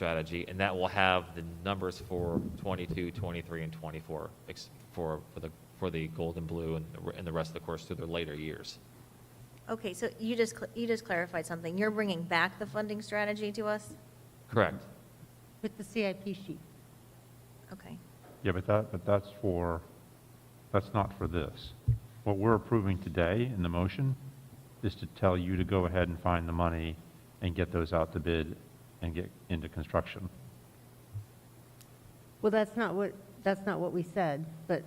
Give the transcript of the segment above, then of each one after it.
strategy, and that will have the numbers for 22, 23, and 24 ex- for, for the, for the gold and blue and the, and the rest of the course through their later years. Okay, so you just, cl- you just clarified something. You're bringing back the funding strategy to us? Correct. With the CIP sheet. Okay. Yeah, but that, but that's for, that's not for this. What we're approving today in the motion is to tell you to go ahead and find the money and get those out to bid and get into construction. Well, that's not what, that's not what we said, but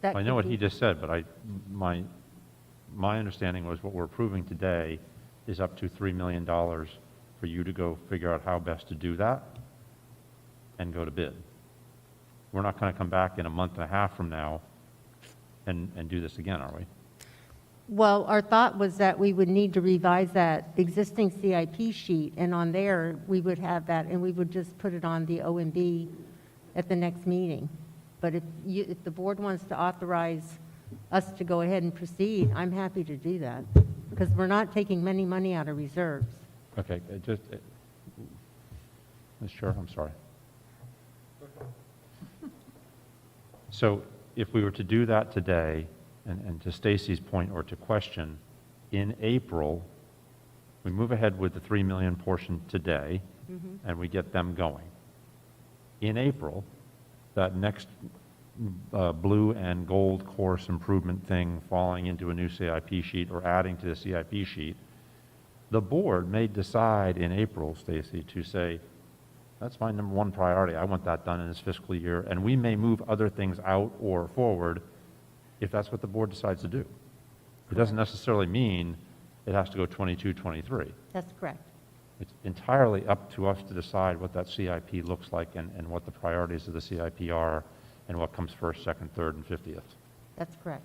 that I know could what he be- just said, but I, my, my understanding was what we're approving today is up to $3 million for you to go figure out how best to do that and go to bid. We're not going to come back in a month and a half from now and, and do this again, are we? Well, our thought was that we would need to revise that existing CIP sheet, and on there, we would have that, and we would just put it on the OMB at the next meeting. But if you, if the board wants to authorize us to go ahead and proceed, I'm happy to do that, because we're not taking many money out of reserves. Okay, it just, it- Ms. Chair, I'm sorry. So if we were to do that today, and, and to Stacy's point or to question, in April, we move ahead with the 3 million portion today, and we get them going. In April, that next uh, blue and gold course improvement thing falling into a new CIP sheet or adding to the CIP sheet, the board may decide in April, Stacy, to say, that's my number one priority, I want that done in this fiscal year, and we may move other things out or forward if that's what the board decides to do. It doesn't necessarily mean it has to go 22, 23. That's correct. It's entirely up to us to decide what that CIP looks like and, and what the priorities of the CIP are, and what comes first, second, third, and 50th. That's correct.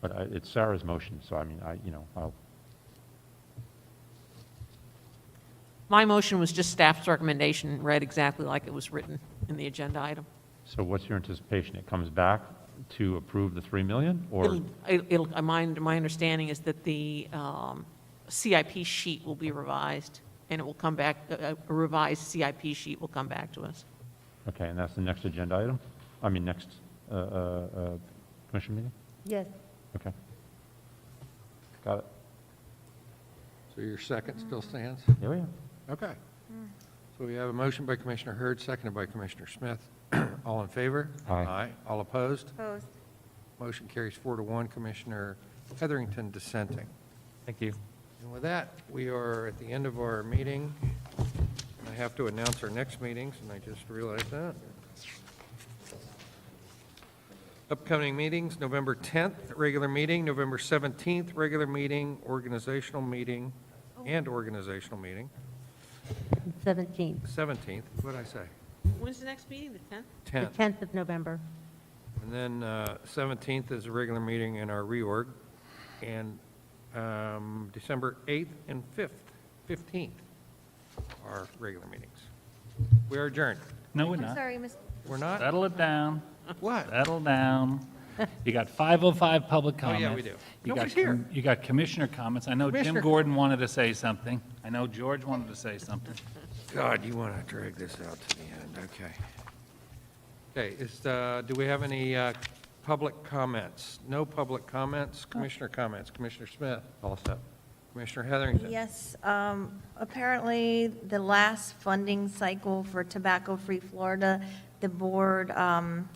But I- it's Sarah's motion, so I mean, I, you know, I'll, My motion was just staff's recommendation, read exactly like it was written in the agenda item. So what's your anticipation? It comes back to approve the 3 million, or, It'll- It'll, uh, my, my understanding is that the um, CIP sheet will be revised, and it will come back, a a revised CIP sheet will come back to us. okay, and that's the next agenda item? I mean, next uh, uh, uh, commission meeting? Yes. Okay. Got it. So your second still stands? Yeah, we are. Okay. So we have a motion by Commissioner Hurd, seconded by Commissioner Smith. All in favor? Aye. All opposed? Opposed? Motion carries four to one. Commissioner Heatherington dissenting. Thank you. And with that, we are at the end of our meeting. And I have to announce our next meetings, and I just realized that. Upcoming meetings, November 10th, regular meeting, November 17th, regular meeting, organizational meeting, and organizational meeting, 17th, 17th, what'd I say? When's the next meeting, the 10th? the 10th. 10th of November. And then uh, 17th is a regular meeting in our reorg, and um, December 8th and 5th, 15th are regular meetings. We are adjourned. No, we're I'm not. sorry, Ms. We're not? Settle it down, What? settle down. You got 505 public Oh, yeah, comments. we do. You got Nobody's here. com- You got commissioner comments. I know Jim Commissioner- Gordon wanted to say something. I know George wanted to say something. God, you want to drag this out to the end, okay. Okay, is, uh, do we have any uh, public comments? No public comments, commissioner comments, Commissioner Smith, All set. Commissioner Heatherington? Yes, um, apparently, the last funding cycle for Tobacco Free Florida, the board, um,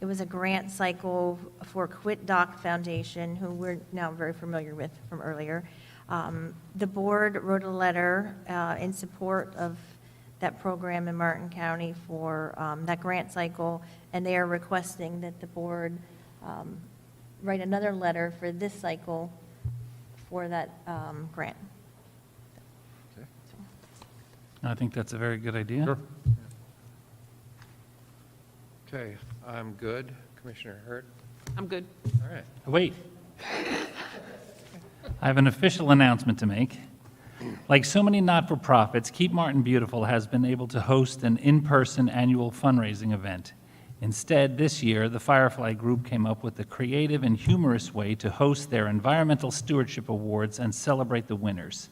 it was a grant cycle for Quit Doc Foundation, who we're now very familiar with from earlier. Um, The board wrote a letter uh, in support of that program in Martin County for um, that grant cycle, and they are requesting that the board um, write another letter for this cycle for that um, grant. Okay. I think that's a very good idea. Sure. Okay, I'm good, Commissioner Hurt, I'm good. all right. Wait. I have an official announcement to make. Like so many not-for-profits, Keep Martin Beautiful has been able to host an in-person annual fundraising event. Instead, this year, the Firefly Group came up with a creative and humorous way to host their Environmental Stewardship Awards and celebrate the winners.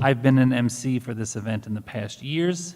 I've been an MC for this event in the past years,